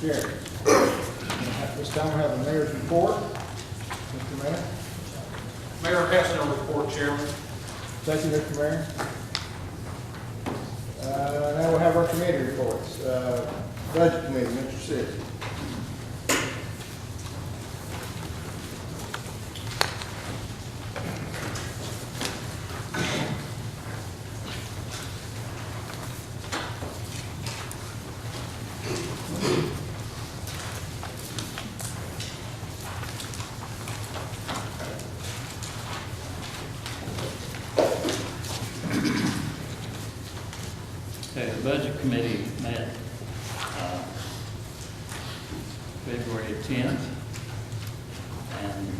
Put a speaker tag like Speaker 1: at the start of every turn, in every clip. Speaker 1: carried. At this time, we have a mayor's report. Mr. Mayor,
Speaker 2: Mayor has no report, Chairman.
Speaker 1: thank you, Mr. Mayor. Uh, Now we have our committee reports. Uh, Budget Committee, Mr. Sis.
Speaker 3: Okay, the budget committee met uh, February 10th. And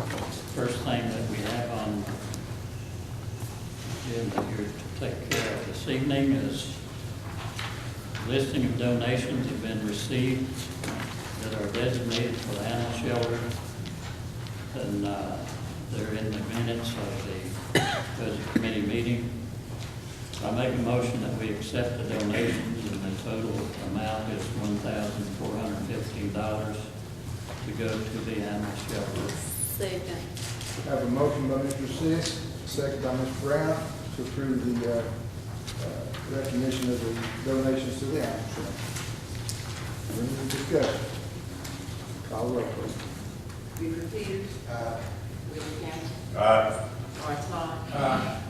Speaker 3: first thing that we have on the agenda here to take care of this evening is listing of donations that have been received that are designated for the animal shelter. And uh, they're in the minutes of the budget committee meeting. I make a motion that we accept the donations and the total amount is one thousand four hundred fifteen dollars to go to the animal shelter.
Speaker 4: Second.
Speaker 1: Have a motion by Mr. Sis, second by Ms. Brown, to approve the uh, uh, recognition of the donations to the animal shelter. Any discussion? Call roll, please.
Speaker 5: Weaver Peters. Aye. Willie Campbell. Lawrence Todd.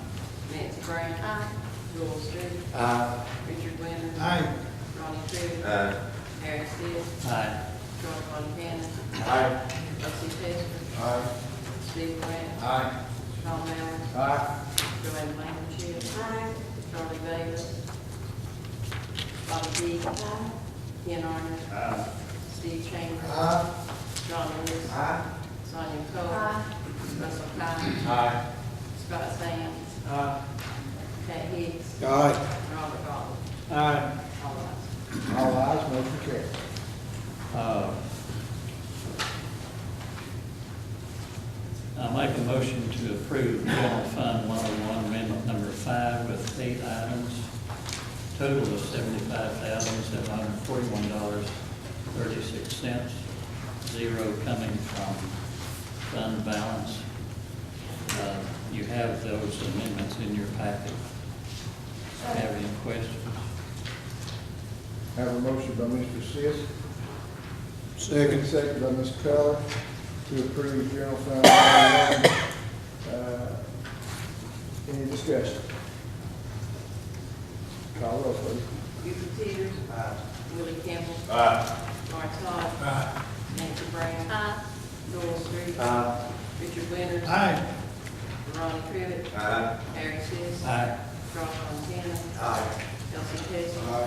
Speaker 5: Nancy Brown. Joel Street. Richard Winters. Ronnie Crivitt. Harry Seas.
Speaker 3: Aye.
Speaker 5: Charles Von Cannon. Rusty Chester. Steve Grant. Tom Allen. Joanne Lichtenstein. Charlie Davis. Bobby Dee. Ken Arden. Steve Chambers. John Lewis. Sonia Cole. Russell Cott. Scott Sands. Pat Hicks. Robert Goff. All ayes.
Speaker 1: All ayes, motion carries.
Speaker 3: Uh, I make a motion to approve general fund one oh one amendment number five with eight items, total of seventy-five thousand seven hundred forty-one dollars thirty-six cents, zero coming from fund balance. Uh, You have those amendments in your packet. Have any questions?
Speaker 1: Have a motion by Mr. Sis. Second. Second by Ms. Keller to approve general fund. number one. Uh, Any discussion? Call roll, please.
Speaker 5: Buford Peters. Willie Campbell. Lawrence Todd. Nancy Brown. Joel Street. Richard Winters. Ronnie Crivitt. Harry Seas.
Speaker 3: Aye.
Speaker 5: Charles Montana. Elsie Testor.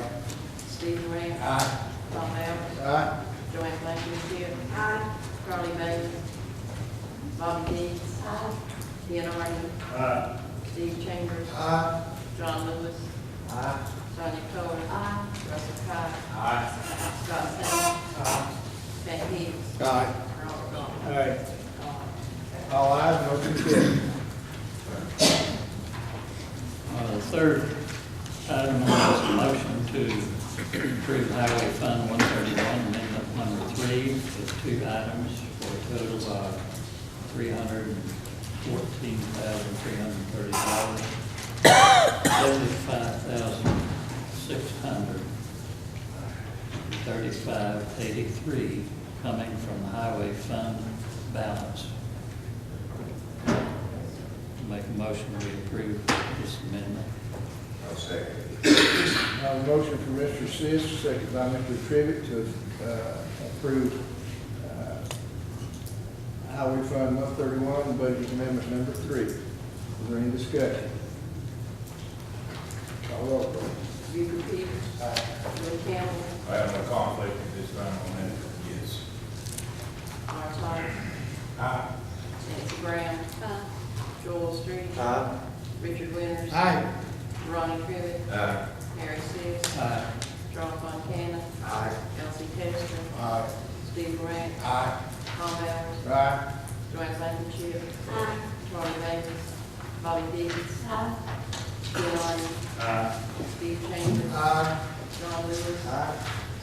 Speaker 5: Steve Grant. Tom Allen.
Speaker 1: Aye.
Speaker 5: Joanne Blankenship. Charlie Bailey. Bobby Dee. Ian Arden. Steve Chambers. John Lewis. Sonia Cole. Russell Cott. Scott Sands. Pat Hicks.
Speaker 1: Aye.
Speaker 5: Robert Goff.
Speaker 1: Aye.
Speaker 5: All
Speaker 1: All
Speaker 5: ayes.
Speaker 1: ayes, motion carries.
Speaker 3: Uh, The third item is a motion to approve Highway Fund 131, amendment number three, with two items for a total of $314,330. $75,635.83 coming from Highway Fund balance. Make a motion we approve this amendment.
Speaker 1: Have a Uh, motion from Mr. Sis, second by Mr. Trivett to uh, approve uh, Highway Fund 131, Budget Amendment Number Three. Is there any discussion? Call roll, please.
Speaker 5: Buford Peters. Willie Campbell.
Speaker 6: I have no conflict at this time on that, yes.
Speaker 5: Lawrence Todd.
Speaker 6: Aye.
Speaker 5: Nancy Brown. Joel Street. Richard Winters. Ronnie Crivitt.
Speaker 6: Aye.
Speaker 5: Harry Seas.
Speaker 3: Aye.
Speaker 5: Charles Montana. Elsie Testor.
Speaker 1: Aye.
Speaker 5: Steve Grant.
Speaker 6: Aye.
Speaker 5: Tom Allen.
Speaker 1: Aye.
Speaker 5: Joanne Blankenship. Charlie Davis. Bobby Dees. Bill Arden. Steve Chambers. John Lewis.
Speaker 1: Aye.